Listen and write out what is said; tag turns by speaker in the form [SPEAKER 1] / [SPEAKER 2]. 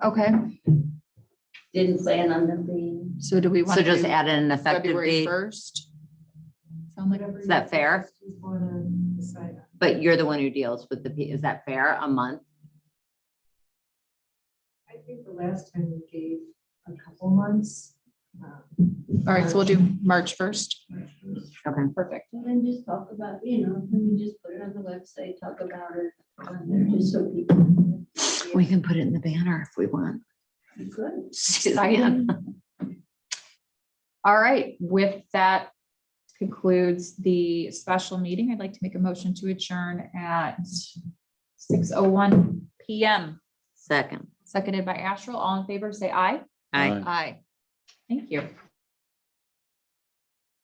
[SPEAKER 1] Okay,
[SPEAKER 2] Didn't plan on them being.
[SPEAKER 1] so do we want?
[SPEAKER 3] So
[SPEAKER 1] to
[SPEAKER 3] just
[SPEAKER 1] do
[SPEAKER 3] add an effective
[SPEAKER 1] February
[SPEAKER 3] date,
[SPEAKER 1] first? Sound like,
[SPEAKER 3] is that fair? But you're the one who deals with the, P- is that fair, a month?
[SPEAKER 4] I think the last time we gave a couple months.
[SPEAKER 1] all right, so we'll do March first.
[SPEAKER 3] Okay.
[SPEAKER 1] Perfect.
[SPEAKER 2] And then just talk about, you know, then we just put it on the website, talk about it on there, just so people.
[SPEAKER 3] We can put it in the banner if we want.
[SPEAKER 2] Good.
[SPEAKER 3] Suzanne.
[SPEAKER 1] All right, with that concludes the special meeting. I'd like to make a motion to adjourn at six oh one PM,
[SPEAKER 3] Second.
[SPEAKER 1] seconded by Astral. All in favor, say aye.
[SPEAKER 3] Aye.
[SPEAKER 1] Aye. Thank you.